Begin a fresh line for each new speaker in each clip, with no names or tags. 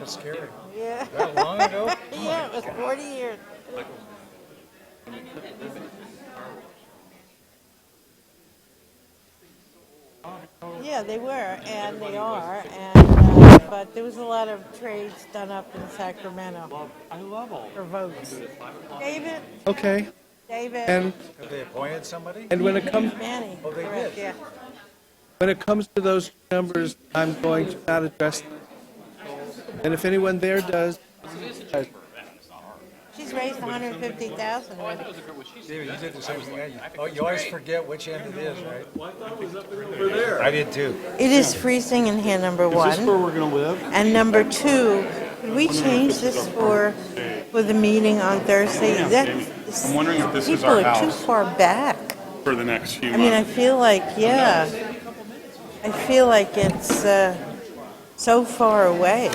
That's scary.
Yeah.
That long ago?
Yeah, it was 40 years. Yeah, they were, and they are, and, uh, but there was a lot of trades done up in Sacramento
I love all.
for votes. David,
Okay.
David.
And
Have they appointed somebody?
and when it comes
Manny,
Oh, they
correct, yeah.
did.
when it comes to those numbers, I'm going to not address. Them. And if anyone there does, does.
She's raised 150,000.
David, you did the same thing. I did. Oh, you always forget which end it is, right? I did too.
It is freezing in here, number one.
Is this where we're gonna live?
And number two, did we change this for, for the meeting on Thursday? That's-
I'm wondering if this is our
People are too
house
far back.
for the next few
I mean, I
months.
feel like, yeah, I feel like it's uh, so far away.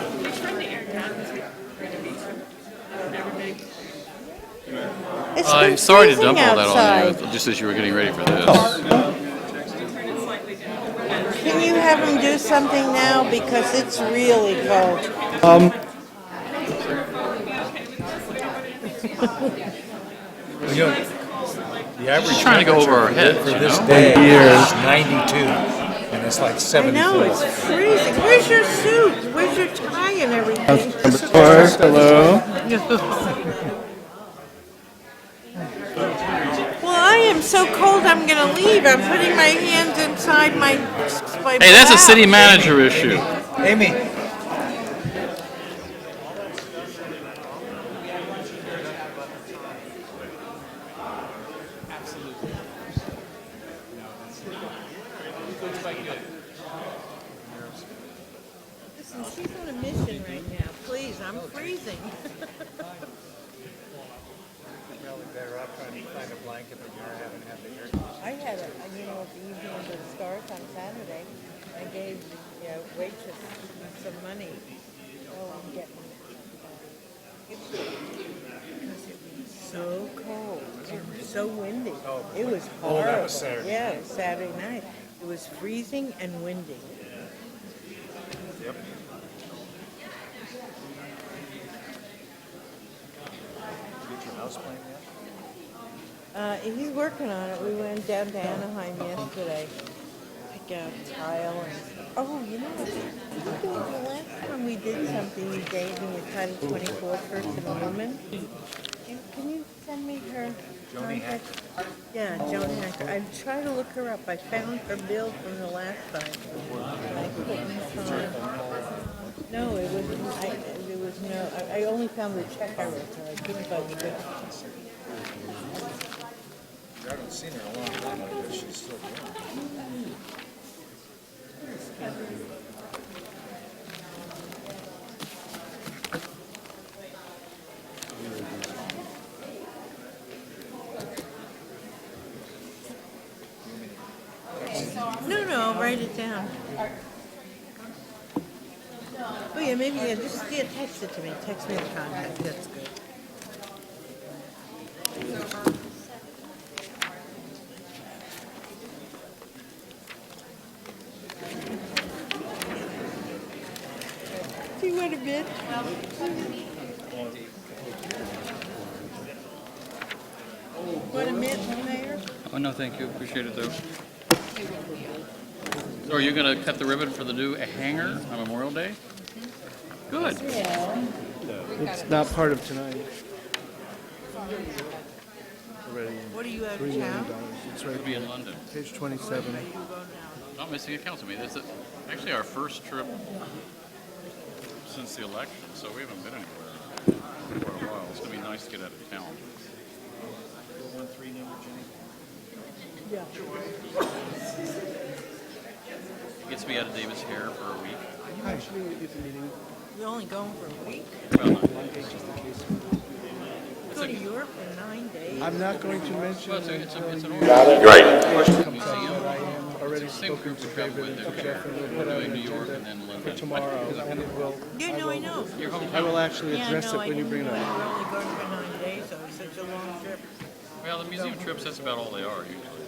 It's
I'm
been
sorry to
freezing
dump all that on
outside.
you, just as you were getting ready for this.
Can you have them do something now because it's really cold?
um,
You know, The average
Just trying to go over our
temperature
heads,
for
you
this
know?
day is 92, and it's like
I
74.
know, it's freezing. Where's your suit? Where's your tie and everything?
Number four, hello.
Well, I am so cold, I'm gonna leave. I'm putting my hands inside my, my
Hey, that's a
blouse.
city manager issue.
Amy,
Listen, she's on a mission right now. Please, I'm freezing.
probably better off trying to find a blanket, but you haven't had the air.
I had a, I- you know, at the evening of the stars on Saturday, I gave the uh, waitress some money. Oh, I'm getting it. Because it was so cold and so windy. It was horrible.
that was Saturday.
Yeah, it was Saturday night. It was freezing and windy.
Get your house plane yet?
Uh, he's working on it. We went down to Anaheim yesterday. Pick out tile and, oh, you know, what? the last time we did something, you gave me a Title 24 person, a woman. Can, can you send me her
Joni
contact? Yeah, Joan Hacker. I tried to look her up. I found her bill from the last time. I couldn't find- No, it was, I, there was no, I, I only found the check I wrote her. I couldn't find the bill.
I haven't seen her in a long time, I guess she's still doing it.
No, no, I'll write it down. Oh yeah, maybe, yeah, just, yeah, text it to me, text me the contact, that's good. Do you want a bit? Want a mint, Mayor?
Oh, no, thank you, appreciate it, though. So are you gonna cut the ribbon for the new hanger on Memorial Day? Good.
It's not part of tonight.
What are you out of town?
It's right
Be in London.
page 27.
Not missing a council meeting. This is actually our first trip since the election, so we haven't been anywhere for a while. It's gonna be nice to get out of town. Gets me out of Davis hair for a week.
Hi. Actually, if the meeting
You're only going for a week?
is just the case.
Go to Europe for nine days.
I'm not going to mention
Well, it's, a,
it
it's, a, it's an order.
until it comes up,
Museum.
but I am already
Same
spoken
group
to
we travel
David and
with.
to
They're
Jeff, and we'll put out
doing
an
New York and
agenda
then
for
London.
tomorrow, and it will,
Yeah, no, I know.
Your
I
hometown.
will actually
Yeah,
address
no,
it
I
when you
didn't
bring it
know I
up.
were only going for nine days, so it's such a long trip.
Well, the museum trips, that's about all they are usually.